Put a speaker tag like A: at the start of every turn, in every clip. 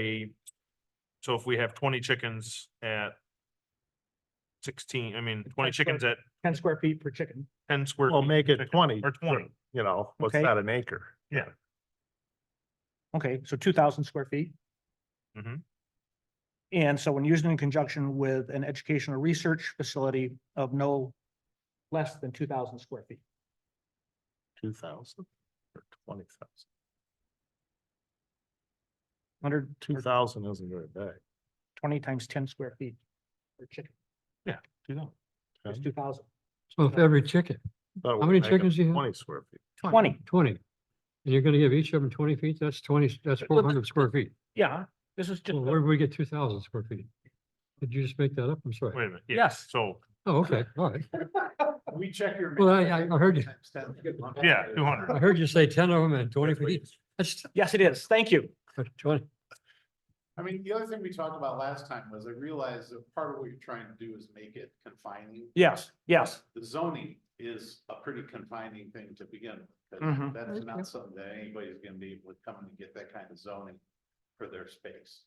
A: a, so if we have twenty chickens at sixteen, I mean, twenty
B: 10 square-
A: chickens at
B: ten square feet per chicken.
A: ten square.
C: Well,
A: feet
C: make
A: per
C: it
A: chicken,
C: 20
A: Or twenty,
C: you know, what's
B: Okay.
C: that, an acre?
A: yeah.
B: Okay, so two thousand square feet.
C: Mm-hmm.
A: Mhm.
B: And so when used in conjunction with an educational research facility of no less than two thousand square feet.
C: Two thousand or twenty thousand?
B: Hundred
C: Two thousand isn't very big.
B: twenty times ten square feet per chicken,
A: you know,
B: that's
C: Okay.
B: two thousand.
D: So if every chicken,
C: Thought we
D: many
C: were making
D: chickens you have?
C: Twenty square feet.
B: Twenty,
D: twenty, and you're gonna give each of them twenty feet, that's twenty, that's
B: But-
D: four hundred square feet.
B: yeah, this is just,
D: Well, where do we get two thousand square feet? Did you just make that up? I'm
A: wait
D: sorry.
A: a minute, yeah,
B: yes.
A: so,
D: Oh, okay, all right.
C: We check your.
D: Well, I, I I heard you,
A: yeah, two hundred.
D: I heard you say ten of them and twenty feet. That's uh,
B: Yes, it is, thank you.
D: twenty.
E: I mean, the other thing we talked about last time was I realized that part of what you're trying to do is make it confining.
B: Yes, yes,
E: The zoning is a pretty confining thing to begin with.
B: Mhm.
E: and That's
D: Yeah.
E: not something that anybody's gonna be able to come and get that kind of zoning for their space.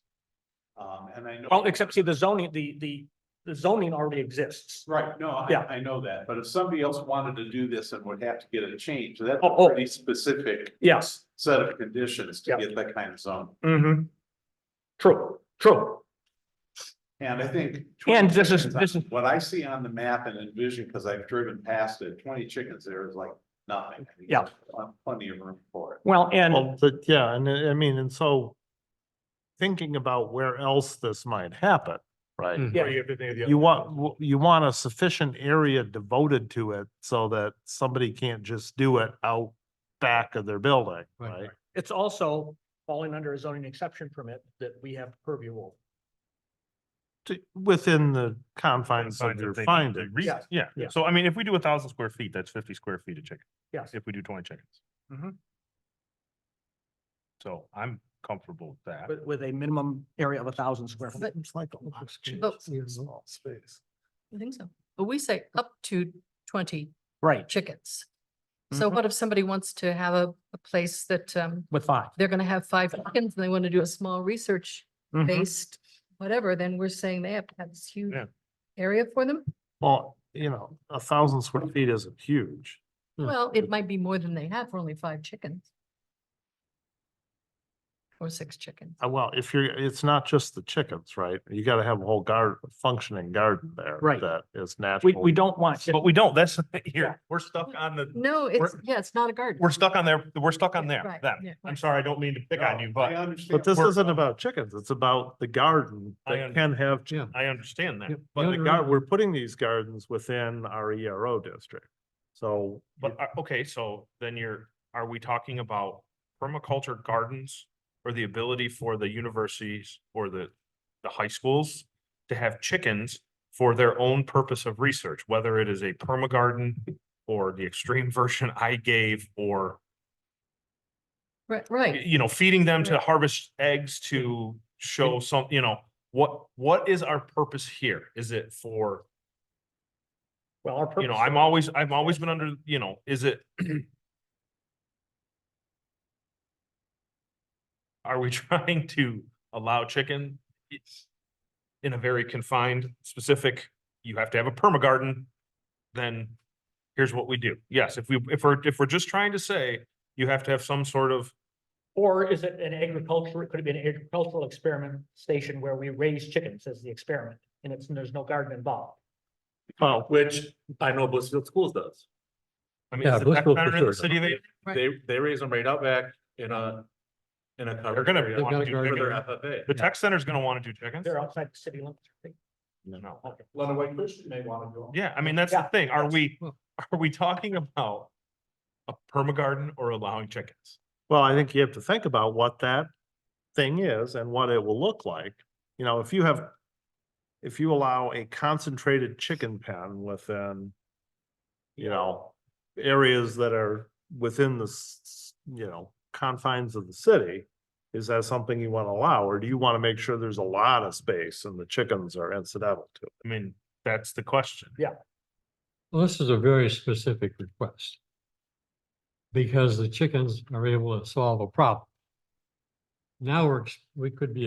E: Um, and I know.
B: well, Oh, except see the zoning, the, the, the zoning already exists.
E: Right, no, I,
B: Yeah.
E: I know that, but if somebody else wanted to do this and would have to get a change, that's
B: Oh, oh.
E: a pretty specific
B: Yes.
E: set of conditions to
B: Yeah.
E: get that kind of zone.
B: Mm-hmm. True, true.
E: And I think. 20
B: And this is,
E: chickens on-
B: this is,
E: What I see on the map and envision, because I've driven past it, twenty chickens there is like nothing. I mean,
B: Yeah.
E: there's pl- Plenty of room for it.
B: well, and,
C: Well, but yeah, and uh, I I mean, and so thinking about where else this might happen, right?
D: Mm.
B: Yeah.
A: Or you have to think of the other
C: You
A: way.
C: want, you want a sufficient area devoted to it so that somebody can't just do it out back of their building,
D: Right,
C: right?
B: it's also falling under a zoning exception permit that we have purview over.
C: To, within the confines of
A: Confines
C: your
A: they need to
C: findings.
A: reach.
B: Yes.
A: Yeah,
B: Yeah.
A: so I mean, if we do a thousand square feet, that's fifty square feet of chicken.
B: Yes.
A: If we do twenty chickens. Mm-hmm.
B: Mhm.
A: So I'm comfortable with that.
B: With, with a minimum area of a thousand square foot.
C: It's like a lot of
D: But-
C: chickens in a small space.
F: I think so. But we say up to twenty
B: Right,
F: chickens. So
A: Mm-hmm.
B: Mhm.
F: what if somebody wants to have a, a place that, um,
B: with five.
F: they're gonna have five chickens and they want to do a small research based, whatever, then we're saying they have to have this huge
A: Mm-hmm. Yeah.
F: area for them?
C: Well, you know, a thousand square feet isn't huge.
D: Hmm.
F: Well, it might be more than they have for only five chickens. Or six chickens.
C: Uh, Well, if you're, it's not just the chickens, right? You gotta have a whole garden, functioning garden there.
B: Right.
C: That is
B: We,
C: natural.
B: we don't want, just-
A: But we don't, that's,
B: Yeah.
A: here, we're stuck on the,
F: No, it's,
A: We're-
F: yeah, it's not a garden.
A: we're stuck on their, we're stuck on there,
F: Yeah, right, yeah,
A: them. I'm
F: right.
A: sorry, I don't mean to pick on you,
E: No, I
A: but
E: understand.
C: But this
A: we're-
C: isn't about chickens. It's about the garden
A: I
C: that can have, chi-
D: Yeah.
A: I understand that.
D: Yep.
C: but the
D: Yonder-
C: gar, we're putting these gardens within our ERO district. So,
A: But, are- okay, so then you're, are we talking about permaculture gardens? Or the ability for the universities or the, the high schools to have chickens for their own purpose of research? Whether it is a perma garden or the extreme version I gave or,
F: Right,
A: y-
F: right.
A: you know, feeding them to
F: Right.
A: harvest eggs to show some, you know, what, what is our purpose here? Is it for
B: well, our
A: you know,
B: purpose-
A: I'm always, I've always been under, you know, is it? Are we trying to allow chicken? It's in a very confined, specific, you have to have a perma garden. Then here's what we do. Yes, if we, if we're, if we're just trying to say, you have to have some sort of,
B: Or is it an agriculture, could it be an agricultural experiment station where we raise chickens as the experiment? And it's, and there's no garden involved.
C: well,
G: Which I know Blissfield Schools does.
A: I mean,
D: Yeah,
A: is it
D: Blissville
A: that
D: for
A: better in the
D: sure.
A: city? They,
F: Right.
G: They, they raise them right out back in a, in a.
A: they're
G: covered
A: gonna
G: area
D: They've got
A: want to
D: a
A: do
G: For
D: garden.
G: their
A: chickens.
G: FFA.
A: The tech center's gonna want to do chickens.
B: They're outside the city limits. I think.
A: No.
E: Lenawee Christian may wanna go.
A: Yeah, I mean, that's the
B: Yeah.
A: thing. Are we,
D: Well-
A: are we talking about a perma garden or allowing chickens?
C: well, I think you have to think about what that thing is and what it will look like. You know, if you have, if you allow a concentrated chicken pen within, you know, areas that are within the, s- s- you know, confines of the city, is that something you want to allow, or do you want to make sure there's a lot of space and the chickens are incidental to it?
A: I mean, that's the question.
D: Well, this is a very specific request. Because the chickens are able to solve a problem. Now we're, ex- we could be